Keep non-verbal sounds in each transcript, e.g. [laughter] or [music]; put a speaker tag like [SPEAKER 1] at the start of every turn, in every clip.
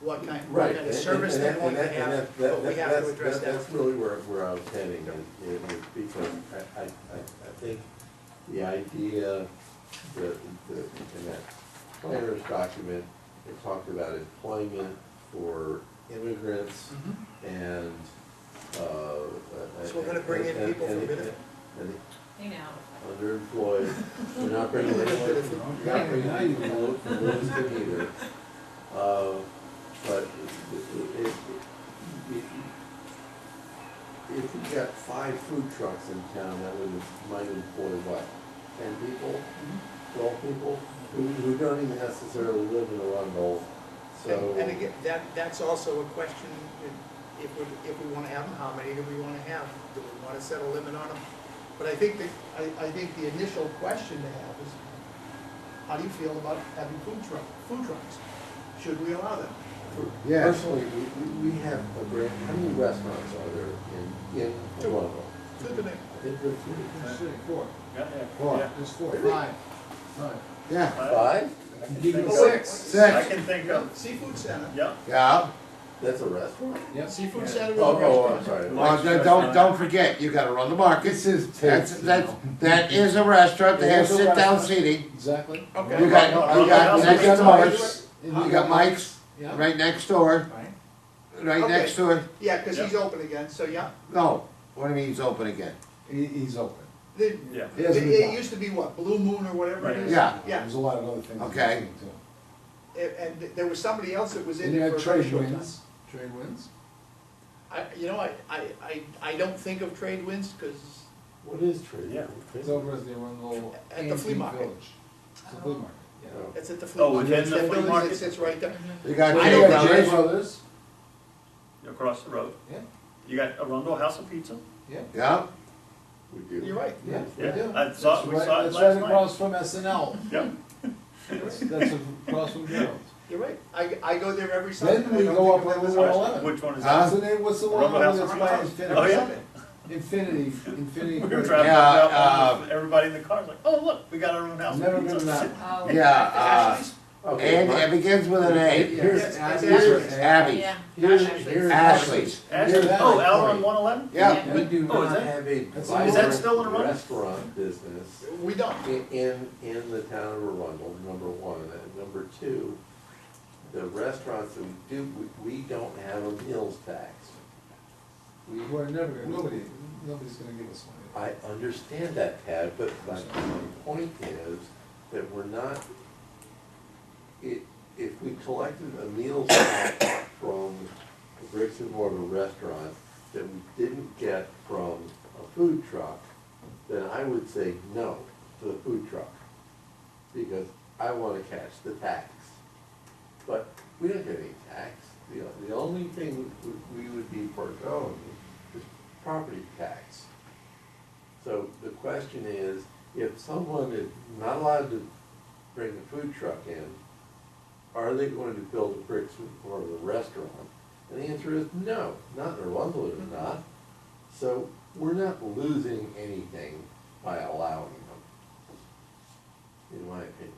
[SPEAKER 1] what kind, what
[SPEAKER 2] Right.
[SPEAKER 1] kind of
[SPEAKER 2] and-
[SPEAKER 1] service
[SPEAKER 2] and
[SPEAKER 1] they
[SPEAKER 2] that-
[SPEAKER 1] want to
[SPEAKER 2] and that- and
[SPEAKER 1] have,
[SPEAKER 2] that- that-
[SPEAKER 1] but we
[SPEAKER 2] that-
[SPEAKER 1] have to
[SPEAKER 2] that's-
[SPEAKER 1] address that.
[SPEAKER 2] That's really where, where I was heading, and, and it- because I, I, I I think the idea, the, the, in that planner's document, it talked about employment for immigrants
[SPEAKER 1] Mhm.
[SPEAKER 2] and, uh. So
[SPEAKER 1] So we're gonna bring in people from benefit.
[SPEAKER 2] And
[SPEAKER 3] You know.
[SPEAKER 2] underemployed, we're not bringing
[SPEAKER 1] [laughs]
[SPEAKER 2] anyone from, we're not bringing anyone from Lew- from Lewiston either. Uh, but it, it, it, it- if we got five food trucks in town, that would, might employ what, ten people, twelve people? Who, who don't even necessarily live in Arundel, so.
[SPEAKER 1] And and again, that, that's also a question, if- if we, if we want to have them, how many do we want to have? Do we want to set a limit on them? But I think that, I, I think the initial question to have is, how do you feel about having food truck, food trucks? Should we allow them?
[SPEAKER 4] Yes.
[SPEAKER 2] Personally, we, we, we have a great, how many restaurants are there in, in
[SPEAKER 1] Two.
[SPEAKER 2] Arundel?
[SPEAKER 1] To the name.
[SPEAKER 2] I think there are three.
[SPEAKER 5] There's three, four,
[SPEAKER 6] Yeah, yeah.
[SPEAKER 4] Four.
[SPEAKER 6] yeah.
[SPEAKER 5] there's four,
[SPEAKER 2] Really?
[SPEAKER 5] five.
[SPEAKER 4] Right. Yeah,
[SPEAKER 6] I-
[SPEAKER 2] Five?
[SPEAKER 6] I can
[SPEAKER 5] Give
[SPEAKER 6] think
[SPEAKER 5] you
[SPEAKER 6] of-
[SPEAKER 1] Six.
[SPEAKER 6] I
[SPEAKER 4] six,
[SPEAKER 6] can think of,
[SPEAKER 1] Oh, Seafood Center.
[SPEAKER 6] yeah,
[SPEAKER 4] yeah.
[SPEAKER 2] That's a restaurant?
[SPEAKER 5] Yep.
[SPEAKER 1] Seafood Center is a
[SPEAKER 2] Oh,
[SPEAKER 1] restaurant.
[SPEAKER 2] oh, I'm sorry.
[SPEAKER 4] Well, then don't, don't forget, you gotta run the market.
[SPEAKER 2] This is
[SPEAKER 4] That's, that's, that is a restaurant, they have sit-down seating.
[SPEAKER 5] Exactly.
[SPEAKER 1] Okay.
[SPEAKER 4] You got, you got next
[SPEAKER 1] How do I do
[SPEAKER 4] doors,
[SPEAKER 1] it?
[SPEAKER 4] you got Mike's,
[SPEAKER 5] Yeah.
[SPEAKER 4] right next door,
[SPEAKER 1] Right.
[SPEAKER 4] right
[SPEAKER 1] Okay.
[SPEAKER 4] next to it.
[SPEAKER 1] Yeah, because he's open again, so yeah.
[SPEAKER 4] No, what do you mean he's open again?
[SPEAKER 5] He, he's open.
[SPEAKER 1] The-
[SPEAKER 6] yeah.
[SPEAKER 5] He hasn't
[SPEAKER 1] It,
[SPEAKER 5] been
[SPEAKER 1] it
[SPEAKER 5] back.
[SPEAKER 1] used to be what, Blue Moon or whatever it
[SPEAKER 6] Right.
[SPEAKER 1] is?
[SPEAKER 4] Yeah.
[SPEAKER 1] Yeah,
[SPEAKER 5] There's a lot of other things.
[SPEAKER 4] Okay.
[SPEAKER 5] in between, too.
[SPEAKER 1] A- and there was somebody else that was in
[SPEAKER 5] And you
[SPEAKER 1] there for
[SPEAKER 5] have
[SPEAKER 1] a very
[SPEAKER 5] trade
[SPEAKER 1] short time.
[SPEAKER 5] winds, trade winds.
[SPEAKER 1] I, you know, I, I, I, I don't think of trade winds, cause
[SPEAKER 2] What is trade?
[SPEAKER 6] Yeah.
[SPEAKER 5] It's over as they run little
[SPEAKER 1] At the
[SPEAKER 5] antique
[SPEAKER 1] flea market.
[SPEAKER 5] village. It's a flea market, yeah.
[SPEAKER 2] Oh.
[SPEAKER 1] it's at the flea
[SPEAKER 6] Oh,
[SPEAKER 1] market,
[SPEAKER 6] within
[SPEAKER 1] it's
[SPEAKER 6] the
[SPEAKER 1] that
[SPEAKER 6] flea
[SPEAKER 1] building
[SPEAKER 6] market?
[SPEAKER 1] that sits right there.
[SPEAKER 4] You got
[SPEAKER 1] I
[SPEAKER 5] Jay-
[SPEAKER 1] know about
[SPEAKER 4] Jay
[SPEAKER 5] Jay
[SPEAKER 1] Jay's.
[SPEAKER 4] Brothers,
[SPEAKER 5] Brothers,
[SPEAKER 6] Across the road.
[SPEAKER 5] yeah,
[SPEAKER 6] You got Arundel House of Pizza?
[SPEAKER 5] yeah,
[SPEAKER 4] yeah,
[SPEAKER 2] We do.
[SPEAKER 1] You're right.
[SPEAKER 5] yeah, we
[SPEAKER 6] Yeah,
[SPEAKER 5] do.
[SPEAKER 6] I saw-
[SPEAKER 5] That's
[SPEAKER 6] we
[SPEAKER 5] right-
[SPEAKER 6] saw it
[SPEAKER 5] That's
[SPEAKER 6] last
[SPEAKER 5] right
[SPEAKER 6] night.
[SPEAKER 5] across from
[SPEAKER 1] [laughs]
[SPEAKER 5] SNL,
[SPEAKER 6] Yeah.
[SPEAKER 5] that's, that's across from Gerald's.
[SPEAKER 1] You're right. I, I go there every Sunday.
[SPEAKER 5] Then
[SPEAKER 1] and I
[SPEAKER 5] we
[SPEAKER 1] don't
[SPEAKER 5] go
[SPEAKER 1] think of them
[SPEAKER 5] up on
[SPEAKER 1] as
[SPEAKER 5] the
[SPEAKER 1] much.
[SPEAKER 5] wall. Eleven.
[SPEAKER 6] Which one is
[SPEAKER 4] Huh?
[SPEAKER 6] that?
[SPEAKER 5] So then what's the one
[SPEAKER 6] Rumble House
[SPEAKER 5] that's
[SPEAKER 6] of
[SPEAKER 5] by
[SPEAKER 6] Rumble.
[SPEAKER 5] Infinity?
[SPEAKER 6] Oh, yeah.
[SPEAKER 5] Infinity, Infinity.
[SPEAKER 6] [laughs] We were
[SPEAKER 5] Bridge.
[SPEAKER 6] driving
[SPEAKER 4] Yeah,
[SPEAKER 6] around,
[SPEAKER 4] uh,
[SPEAKER 6] with everybody in the car, like, oh, look, we got our own house. of
[SPEAKER 5] Never been
[SPEAKER 6] pizza."
[SPEAKER 5] to that one.
[SPEAKER 3] Oh.
[SPEAKER 6] Ah.
[SPEAKER 4] yeah,
[SPEAKER 1] Ashley's?
[SPEAKER 4] uh,
[SPEAKER 2] Okay,
[SPEAKER 4] and
[SPEAKER 2] my-
[SPEAKER 4] it begins with an A.
[SPEAKER 2] Here's,
[SPEAKER 1] Yeah, it's
[SPEAKER 2] here's
[SPEAKER 1] Ashley's.
[SPEAKER 4] Abby,
[SPEAKER 3] Yeah.
[SPEAKER 2] here's,
[SPEAKER 3] Ashley's.
[SPEAKER 2] here's.
[SPEAKER 4] Ashley's,
[SPEAKER 6] Ashley,
[SPEAKER 5] Yeah.
[SPEAKER 6] oh, out on one eleven?
[SPEAKER 4] yeah,
[SPEAKER 2] We do
[SPEAKER 6] Oh, is
[SPEAKER 2] not
[SPEAKER 6] that-
[SPEAKER 2] have a
[SPEAKER 5] that's in- Is that
[SPEAKER 2] vibrant
[SPEAKER 6] still in Arundel?
[SPEAKER 2] Restaurant business
[SPEAKER 1] We don't.
[SPEAKER 2] i- in, in the town of Arundel, number one. And number two, the restaurants that we do, we, we don't have a meals tax. We,
[SPEAKER 5] We're never, gonna- nobody, nobody's gonna give us one.
[SPEAKER 2] I understand that, Tad, but my my point is that we're not, i- if we collected a meal tax from a bricks and mortar restaurant that we didn't get from a food truck, then I would say no to the food truck, because I wanna catch the tax. But we don't get any tax, the, the only thing we we would be foregoing is property tax. So the question is, if someone is not allowed to bring a food truck in, are they going to build a bricks or a restaurant? And the answer is no, not in Arundel
[SPEAKER 7] Mm-hmm.
[SPEAKER 2] it is not. So we're not losing anything by allowing them, in my opinion.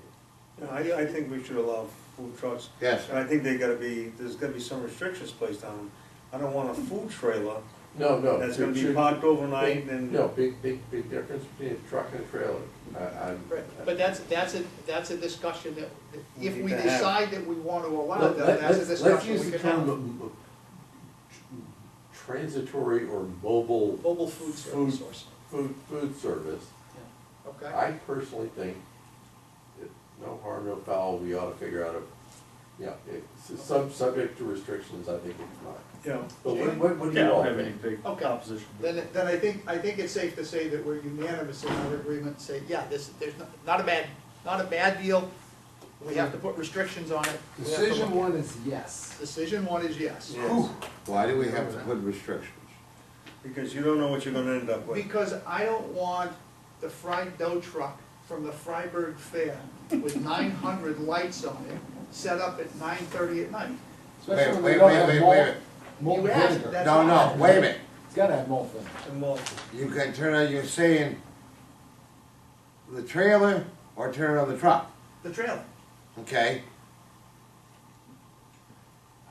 [SPEAKER 7] Yeah, I, I think we should allow food trucks,
[SPEAKER 4] yes.
[SPEAKER 7] and I think they gotta be, there's gotta be some restrictions placed on them. I don't want a food trailer
[SPEAKER 2] No, no.
[SPEAKER 7] that's gonna be
[SPEAKER 2] should-
[SPEAKER 7] parked overnight
[SPEAKER 2] big-
[SPEAKER 7] and.
[SPEAKER 2] No, big, big, big difference between a truck and a trailer. I, I'm.
[SPEAKER 1] Right. But that's, that's a, that's a discussion that, that if
[SPEAKER 7] We
[SPEAKER 1] we
[SPEAKER 7] need to have.
[SPEAKER 1] decide that we want to allow
[SPEAKER 2] Let-
[SPEAKER 1] them,
[SPEAKER 2] let-
[SPEAKER 1] that's a
[SPEAKER 2] let's- let's
[SPEAKER 1] discussion
[SPEAKER 2] use
[SPEAKER 1] we
[SPEAKER 2] the
[SPEAKER 1] can
[SPEAKER 2] term
[SPEAKER 1] have.
[SPEAKER 2] m- m- tr- Transitory or mobile
[SPEAKER 1] Mobile food
[SPEAKER 2] Food.
[SPEAKER 1] service source.
[SPEAKER 2] food, food service.
[SPEAKER 1] Okay.
[SPEAKER 2] I personally think, that no harm, no foul, we ought to figure out a, yeah, it's some, subject to restrictions, I think it's fine.
[SPEAKER 7] Yeah,
[SPEAKER 2] But what, what, what do
[SPEAKER 6] Yeah, I
[SPEAKER 2] you all
[SPEAKER 6] don't have any
[SPEAKER 2] think?
[SPEAKER 6] big
[SPEAKER 1] Okay.
[SPEAKER 6] opposition.
[SPEAKER 1] Then, then I think, I think it's safe to say that we're unanimous in our agreement, say, yeah, this, there's not, not a bad, not a bad deal. We have to put restrictions on it. We have to look
[SPEAKER 5] Decision
[SPEAKER 1] at it.
[SPEAKER 5] one is yes.
[SPEAKER 1] Decision one is yes.
[SPEAKER 7] yes,
[SPEAKER 4] Why do we have to put restrictions?
[SPEAKER 7] because you don't know what you're gonna end up with.
[SPEAKER 1] Because I don't want the fried dough truck from the Freiburg Fair with nine hundred lights on it, set up at nine thirty at night.
[SPEAKER 5] Especially when
[SPEAKER 4] wait,
[SPEAKER 5] they don't
[SPEAKER 4] wait, wait,
[SPEAKER 5] have
[SPEAKER 4] wait a
[SPEAKER 5] malt,
[SPEAKER 4] minute.
[SPEAKER 5] malt
[SPEAKER 1] You asked,
[SPEAKER 5] vinegar.
[SPEAKER 1] that's
[SPEAKER 4] No,
[SPEAKER 1] why.
[SPEAKER 4] no, wait a minute,
[SPEAKER 5] It's gotta have malt vinegar.
[SPEAKER 7] And well,
[SPEAKER 4] you can turn on, you're saying the trailer or turn on the truck,
[SPEAKER 1] The trailer,
[SPEAKER 4] okay?